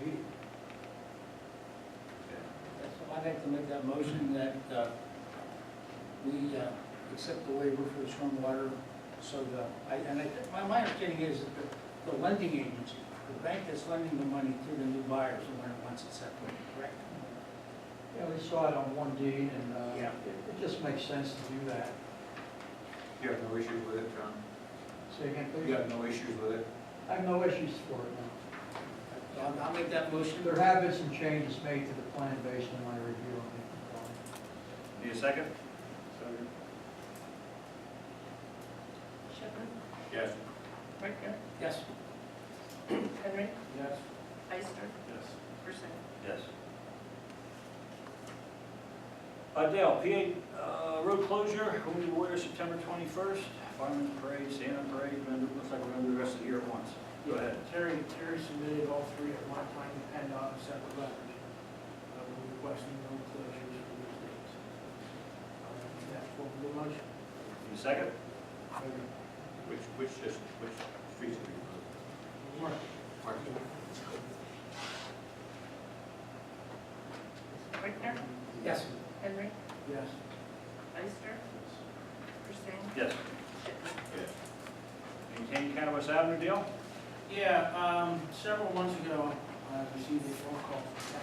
meeting. That's why I'd like to make that motion that uh, we uh, accept the waiver for the stormwater, so the, I- and I, think- my, my understanding is that the- the lending agency, the bank that's lending the money to the new buyers, the one that wants it separated, correct? Yeah, we saw it on one deed, and uh, Yeah. it it just makes sense to do that. You have no issues with it, John? Say again, You please. have no issues with it? I have no issues for it now. So I'll, I'll make that motion. There have been some changes made to the plan based on my review on the plan. Need a second? Second. Shepherd, Yes. Rechner, Yes. Henry, Yes. Ister, Yes. Persing. Yes. Adele, PA, uh, road closure, Holy Warrior, September twenty-first, Fireman Parade, Santa Parade, and it looks like we're gonna do the rest of the year at once. Go ahead. Terry, Terry submitted all three at one time, and on separate letters, uh, requesting no closures for these dates. Uh, That's what the motion. Need a second? Which, which, just, which streets are Mark, Rechner, Yes. Henry, yes. Ister, Persing, Yes. Shepherd. Yes. Maintain Cannabis Avenue deal? Yeah, um, several months ago, I received a phone call from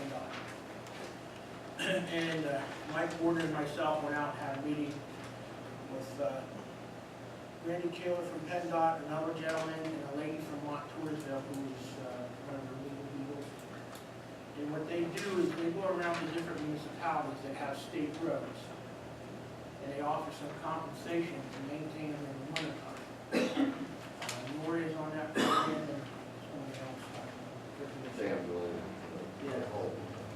PennDOT. And uh, Mike Warden and myself went out and had a meeting with uh, Randy Taylor from PennDOT, another gentleman, and a lady from Montoursville who's uh, one of the legal people. And what they do is they go around to different municipalities that have state roads. And they offer some compensation to maintain them in the winter time. Lori is Uh, on that program and somebody else. They have the, Yeah. the whole.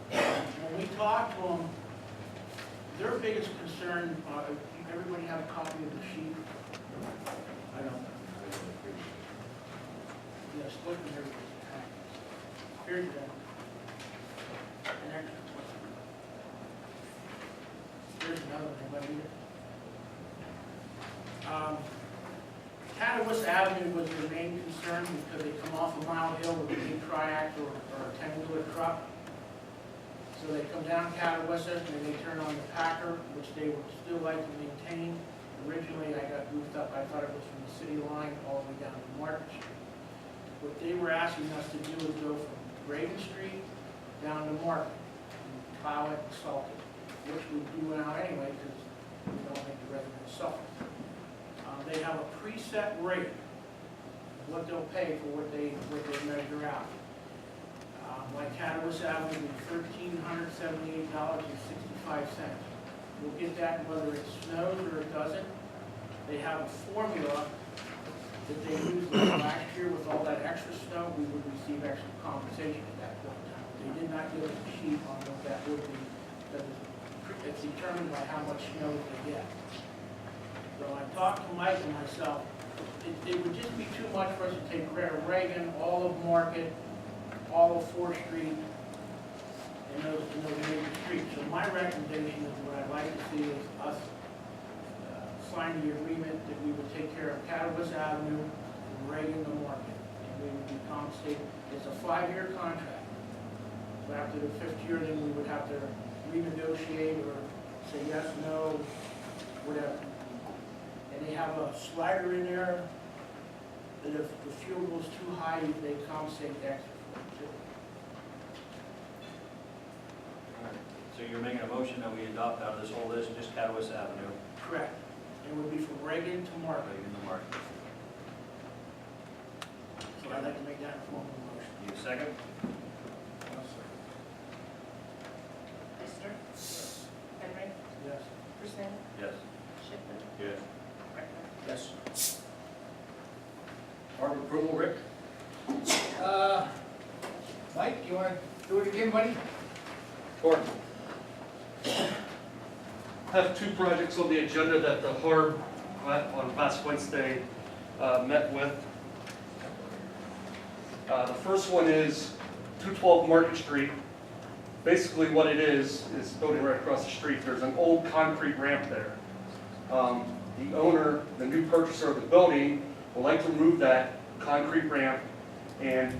When we talked to them, their biggest concern, uh, everybody have a copy of the sheet? I don't. Yes, look at everybody's copy. Here's the. and there- Here's another one, anybody read it? Um, Catawissa Avenue was their main concern because they come off of Mile Hill with a big triac or or a ten-wheeler truck. So they come down Catawissa, and then they turn on the Packer, which they would still like to maintain. Originally, I got goofed up, I thought it was from the city line all the way down to Market Street. What they were asking us to do is go from Raven Street down to Market, and plow it and salt it, which we do now anyway, because we don't make the residents suffer. Uh, They have a preset rate, what they'll pay for what they, what they measure out. Uh, My Catalyst Avenue is thirteen hundred seventy-eight dollars and sixty-five cents. We'll get that whether it snows or it doesn't. They have a formula that they used like last year with all that extra snow, we would receive extra compensation at that point in time. They did not give us a sheet on what that would be, that is, it's determined by how much snow they get. So I talked to Mike and myself, it, it would just be too much for us to take Red Reagan, all of Market, all of Fourth Street, and those, and those major streets. So my recommendation is what I'd like to see is us uh, sign the agreement that we would take care of Catawissa Avenue and Reagan to Market, and we would be compensated. It's a five-year contract. So after the fifth year, then we would have to renegotiate or say yes, no, whatever. And they have a slider in there that if the fuel goes too high, they compensate extra for it too. So you're making a motion that we adopt out of this whole list, just Catalyst Avenue, Correct. It would be from Reagan to right Market. in the market. So I'd like to make that a formal motion. Need a second? Ister, Henry, Yes. Persing, Yes. Shepherd, Yes. Rechner. Yes. Harbor approval, Rick? Uh, Mike, you want to do it again, buddy? Or Have two projects on the agenda that the Harb uh, on last Wednesday uh, met with. Uh, The first one is 212 Market Street. Basically what it is, is building right across the street, there's an old concrete ramp there. Um, The owner, the new purchaser of the building, would like to remove that concrete ramp and